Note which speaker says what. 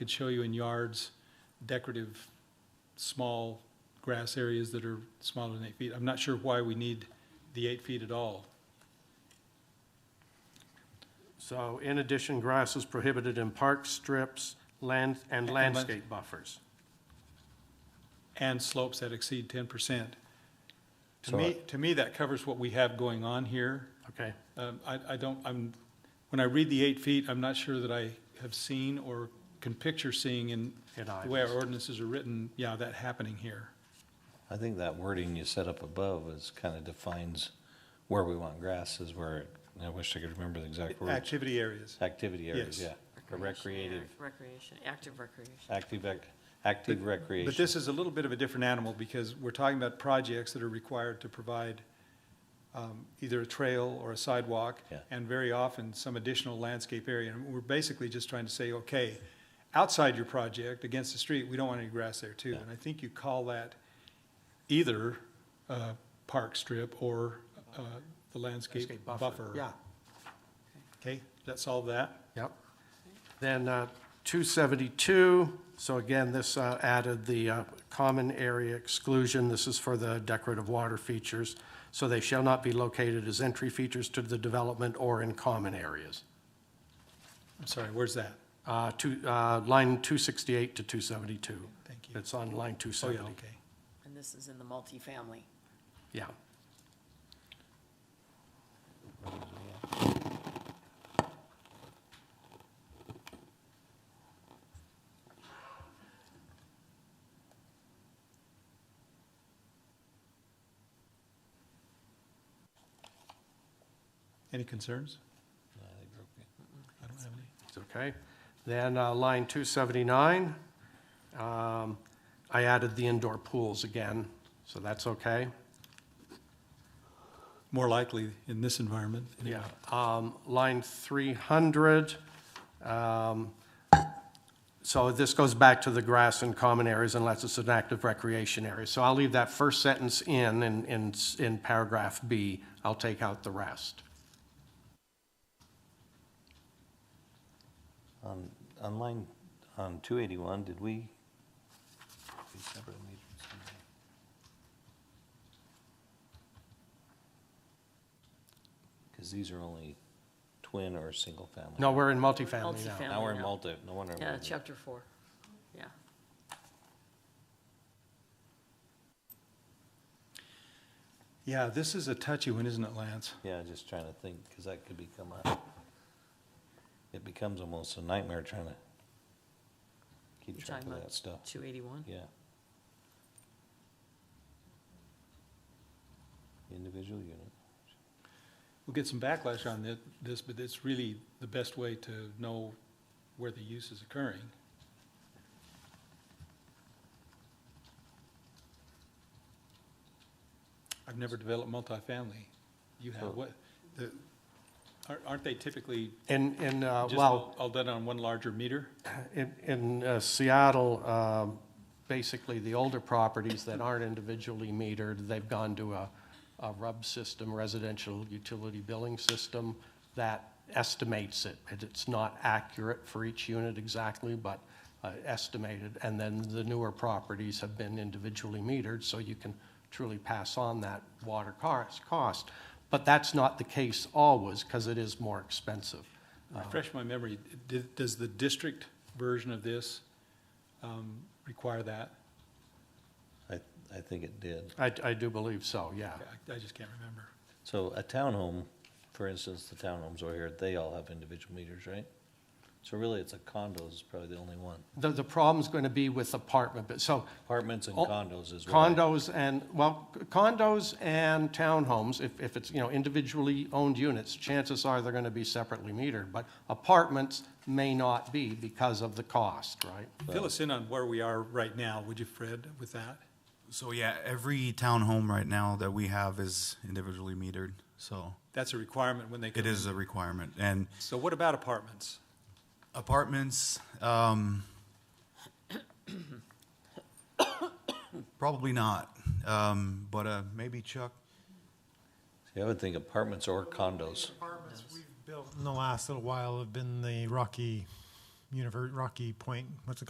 Speaker 1: could show you in yards decorative, small grass areas that are smaller than eight feet. I'm not sure why we need the eight feet at all.
Speaker 2: So in addition, grass is prohibited in park strips, land, and
Speaker 1: And lands-
Speaker 2: landscape buffers.
Speaker 1: and slopes that exceed ten percent. To
Speaker 3: So
Speaker 1: me, to me, that covers what we have going on here.
Speaker 2: Okay,
Speaker 1: Um, I, I don't, I'm, when I read the eight feet, I'm not sure that I have seen or can picture seeing in
Speaker 2: In
Speaker 1: the way our
Speaker 2: Ivans.
Speaker 1: ordinances are written, yeah, that happening here.
Speaker 3: I think that wording you set up above is kind of defines where we want grass is where, it- I wish I could remember the exact words.
Speaker 1: Activity areas.
Speaker 3: Activity areas, yeah.
Speaker 1: Yes.
Speaker 3: Or Recreative,
Speaker 4: Recreation, active recreation.
Speaker 3: active, ac- active
Speaker 1: But
Speaker 3: recreation.
Speaker 1: this is a little bit of a different animal because we're talking about projects that are required to provide um, either a trail or a sidewalk.
Speaker 3: Yeah.
Speaker 1: And very often, some additional landscape area. And we're basically just trying to say, okay, outside your project, against the street, we don't want any grass there too.
Speaker 3: Yeah.
Speaker 1: And I think you call that either uh, park strip or uh, the landscape
Speaker 2: Landscape buffer.
Speaker 1: buffer.
Speaker 2: Yeah.
Speaker 1: Okay, does that solve that?
Speaker 2: yep. Then uh, 272, so again, this uh, added the uh, common area exclusion. This is for the decorative water features. So they shall not be located as entry features to the development or in common areas.
Speaker 1: I'm sorry, where's that?
Speaker 2: Uh, Two, uh, line 268 to 272.
Speaker 1: Thank you.
Speaker 2: It's on line
Speaker 1: Oh, yeah,
Speaker 2: 270.
Speaker 1: okay.
Speaker 4: And this is in the multifamily.
Speaker 2: Yeah.
Speaker 1: Any concerns?
Speaker 3: I think we're okay.
Speaker 1: I don't have any.
Speaker 2: It's okay. Then uh, line 279, um, I added the indoor pools again, so that's okay.
Speaker 1: More likely in this environment. anyway.
Speaker 2: Yeah. Um, Line 300, um, so this goes back to the grass and common areas unless it's an active recreation area. So I'll leave that first sentence in, in- in, s- in paragraph B. I'll take out the rest.
Speaker 3: On, on line, on two eighty-one, did we? we separately need something? Cause these are only twin or single family.
Speaker 2: No, we're in multifamily now.
Speaker 4: Multifamily.
Speaker 3: Now we're in
Speaker 4: now.
Speaker 3: multi, no wonder.
Speaker 4: Yeah,
Speaker 3: we-
Speaker 4: chapter four. Yeah.
Speaker 1: Yeah, this is a touchy one, isn't it, Lance?
Speaker 3: Yeah, just trying to think, because that could become a, it becomes almost a nightmare trying to keep
Speaker 4: You're
Speaker 3: track
Speaker 4: talking
Speaker 3: of
Speaker 4: about
Speaker 3: that stuff.
Speaker 4: Two eighty-one?
Speaker 3: Yeah. Individual unit.
Speaker 1: We'll get some backlash on thi- this, but it's really the best way to know where the use is occurring. I've never developed multifamily. You have what, the, aren't- aren't they typically
Speaker 2: In, in, uh,
Speaker 1: just
Speaker 2: well.
Speaker 1: all all done on one larger meter?
Speaker 2: In, in uh, Seattle, um, basically, the older properties that aren't individually metered, they've gone to a, a RUB system, residential utility billing system, that estimates it. And It's not accurate for each unit exactly, but uh, estimated. And then the newer properties have been individually metered, so you can truly pass on that water cost- cost. But that's not the case always, because it is more expensive.
Speaker 1: Refresh my memory, d- does the district version of this um, require that?
Speaker 3: I, I think it did.
Speaker 2: I, I do believe so, yeah.
Speaker 1: I I just can't remember.
Speaker 3: So a townhome, for instance, the townhomes over here, they all have individual meters, right? So really, it's a condo is probably the only one.
Speaker 2: The, the problem's going to be with apartment, but, so
Speaker 3: Apartments and
Speaker 2: Oh,
Speaker 3: condos is what I-
Speaker 2: condos and, well, condos and townhomes, if, if it's, you know, individually owned units, chances are they're going to be separately metered, but apartments may not be because of the cost, right?
Speaker 1: Fill us in on where we are right now, would you, Fred, with that?
Speaker 5: So yeah, every townhome right now that we have is individually metered, so
Speaker 1: That's a requirement when they come.
Speaker 5: it is a requirement. And
Speaker 1: So what about apartments?
Speaker 5: apartments, um, probably not, um, but uh, maybe Chuck.
Speaker 3: See, I would think apartments or condos.
Speaker 6: Apartments we've built in the last little while have been the Rocky univer, Rocky Point, what's it called?